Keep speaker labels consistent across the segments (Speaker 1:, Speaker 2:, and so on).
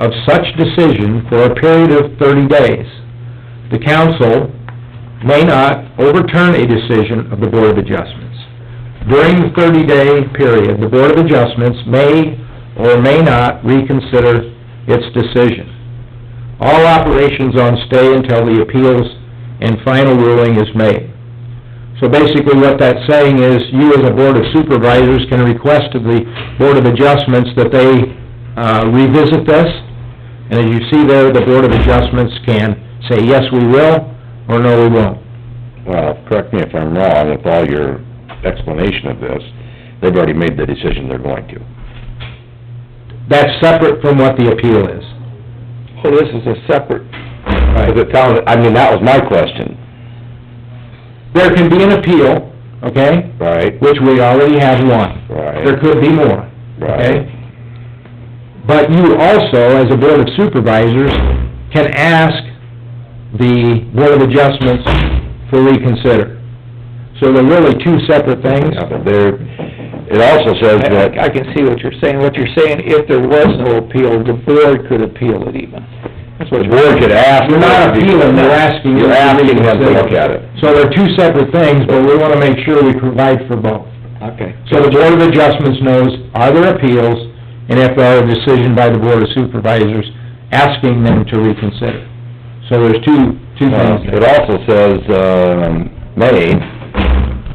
Speaker 1: of such decision for a period of thirty days. The council may not overturn a decision of the Board of Adjustments. During the thirty-day period, the Board of Adjustments may or may not reconsider its decision. All operations on stay until the appeals and final ruling is made. So basically what that's saying is, you as a Board of Supervisors can request of the Board of Adjustments that they uh, revisit this. And as you see there, the Board of Adjustments can say, yes, we will, or no, we won't.
Speaker 2: Well, correct me if I'm wrong, with all your explanation of this, they've already made the decision they're going to.
Speaker 1: That's separate from what the appeal is.
Speaker 2: Well, this is a separate... Is it town, I mean, that was my question,
Speaker 1: There can be an appeal, okay,
Speaker 2: right?
Speaker 1: which we already have one. There
Speaker 2: Right,
Speaker 1: could be more,
Speaker 2: right.
Speaker 1: okay? But you also, as a Board of Supervisors, can ask the Board of Adjustments for reconsider. So they're really two separate things.
Speaker 2: Yeah, but there, it also says that...
Speaker 3: I I can see what you're saying. What you're saying, if there was no appeal, the board could appeal it even. That's what
Speaker 2: The
Speaker 3: you're...
Speaker 2: board could ask...
Speaker 1: You're not appealing, you're asking.
Speaker 2: You're asking them to look at it.
Speaker 1: So they're two separate things, but we wanna make sure we provide for both.
Speaker 3: Okay.
Speaker 1: So the Board of Adjustments knows, are there appeals, and if there are a decision by the Board of Supervisors, asking them to reconsider. So there's two, two
Speaker 2: Uh,
Speaker 1: things
Speaker 2: It
Speaker 1: there.
Speaker 2: also says, um, may,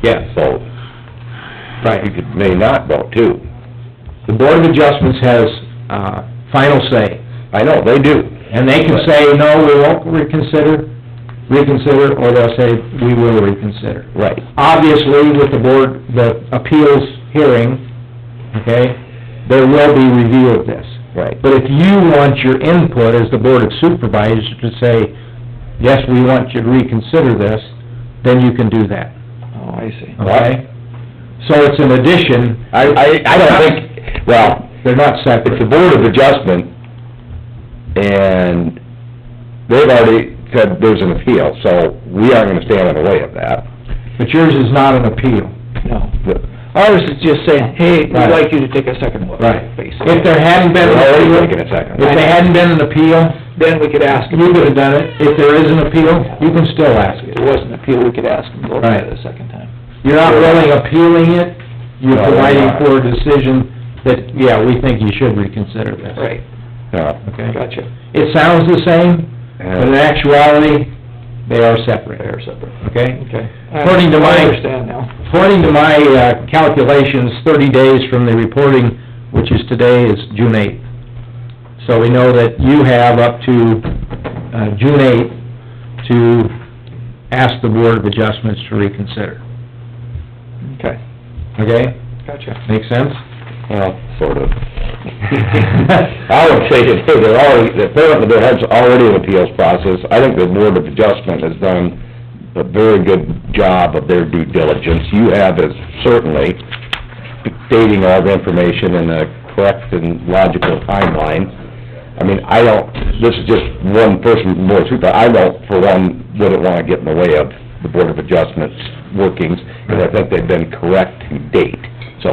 Speaker 1: Yes.
Speaker 2: so... You
Speaker 1: Right.
Speaker 2: could, may not vote too.
Speaker 1: The Board of Adjustments has, uh, final say,
Speaker 2: I know, they do.
Speaker 1: and they can say, no, we won't reconsider, reconsider, or they'll say, we will reconsider.
Speaker 2: Right.
Speaker 1: obviously, with the board, the appeals hearing, okay, there will be review of this.
Speaker 2: Right.
Speaker 1: But if you want your input as the board of supervisors to say, yes, we want you to reconsider this, then you can do that,
Speaker 3: Oh, I see.
Speaker 1: okay? So it's an addition,
Speaker 2: I, I, I don't think, well,
Speaker 1: they're not
Speaker 2: it's the
Speaker 1: separate.
Speaker 2: Board of Adjustment, and they've already said there's an appeal, so we aren't gonna stand in the way of that.
Speaker 1: But yours is not an appeal.
Speaker 3: No.
Speaker 2: The-
Speaker 3: Ours is just saying, hey, we'd
Speaker 1: Right.
Speaker 3: like you to take a second look.
Speaker 1: If
Speaker 3: Basically.
Speaker 1: there hadn't been
Speaker 2: They're already
Speaker 1: an
Speaker 2: taking
Speaker 1: appeal,
Speaker 2: a second.
Speaker 1: if they hadn't been an appeal,
Speaker 3: Then we could ask them.
Speaker 1: you could've done it. If there is an appeal, you can still ask
Speaker 3: If
Speaker 1: it.
Speaker 3: there was an appeal, we could ask them to look at it
Speaker 1: Right.
Speaker 3: a second time.
Speaker 1: You're not really appealing it, you're
Speaker 2: No, we're
Speaker 1: providing
Speaker 2: not.
Speaker 1: for a decision that, yeah, we think you should reconsider this.
Speaker 3: Right,
Speaker 2: No.
Speaker 1: Okay?
Speaker 3: gotcha.
Speaker 1: It sounds the same, but in
Speaker 2: And
Speaker 1: actuality, they are separate.
Speaker 3: They're separate.
Speaker 1: Okay?
Speaker 3: Okay.
Speaker 1: According to my-
Speaker 3: I understand now.
Speaker 1: According to my uh, calculations, thirty days from the reporting, which is today, is June eighth. So we know that you have up to, uh, June eighth to ask the Board of Adjustments to reconsider.
Speaker 3: Okay,
Speaker 1: Okay?
Speaker 3: gotcha.
Speaker 1: Make sense?
Speaker 2: Well, sort of. I would say that they're already, apparently there has already an appeals process. I think the Board of Adjustment has done a very good job of their due diligence. You have is certainly dating all the information in a correct and logical timeline. I mean, I don't, this is just one person, more super, I don't, for one, wouldn't wanna get in the way of the Board of Adjustments workings, because I think they've been correct to date, so,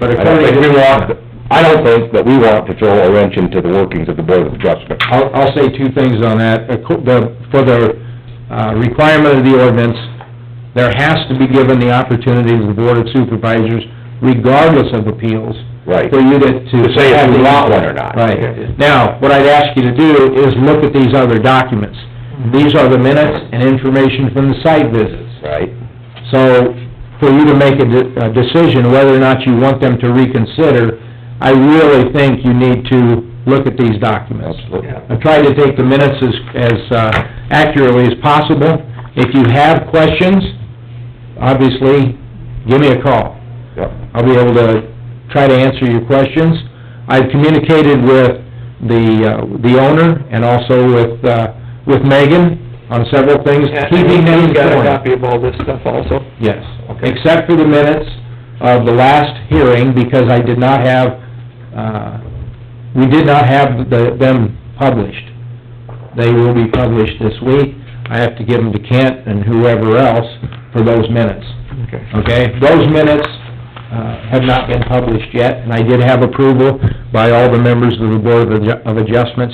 Speaker 1: But
Speaker 2: I don't
Speaker 1: according
Speaker 2: think
Speaker 1: to...
Speaker 2: we want, I don't think that we want to throw a wrench into the workings of the Board of Adjustment.
Speaker 1: I'll, I'll say two things on that. Acco- the- For the uh, requirement of the ordinance, there has to be given the opportunity to the Board of Supervisors, regardless of appeals,
Speaker 2: Right.
Speaker 1: for you to...
Speaker 2: To say if we want one or not.
Speaker 1: Right. Now, what I'd ask you to do is look at these other documents.
Speaker 2: Mm-hmm.
Speaker 1: These are the minutes and information from the site visits.
Speaker 2: Right.
Speaker 1: So, for you to make a de- a decision whether or not you want them to reconsider, I really think you need to look at these documents.
Speaker 2: Absolutely.
Speaker 3: Yeah.
Speaker 1: I tried to take the minutes as, as uh, accurately as possible. If you have questions, obviously, give me a call.
Speaker 2: Yep.
Speaker 1: I'll be able to try to answer your questions. I've communicated with the, uh, the owner and also with, uh, with Megan on several things, keeping them
Speaker 3: He's got a
Speaker 1: informed.
Speaker 3: copy of all this stuff also.
Speaker 1: Yes,
Speaker 3: Okay.
Speaker 1: except for the minutes of the last hearing, because I did not have, uh, we did not have the- them published. They will be published this week. I have to give them to Kent and whoever else for those minutes,
Speaker 3: Okay.
Speaker 1: okay? Those minutes uh, have not been published yet, and I did have approval by all the members of the Board of Adju- of Adjustments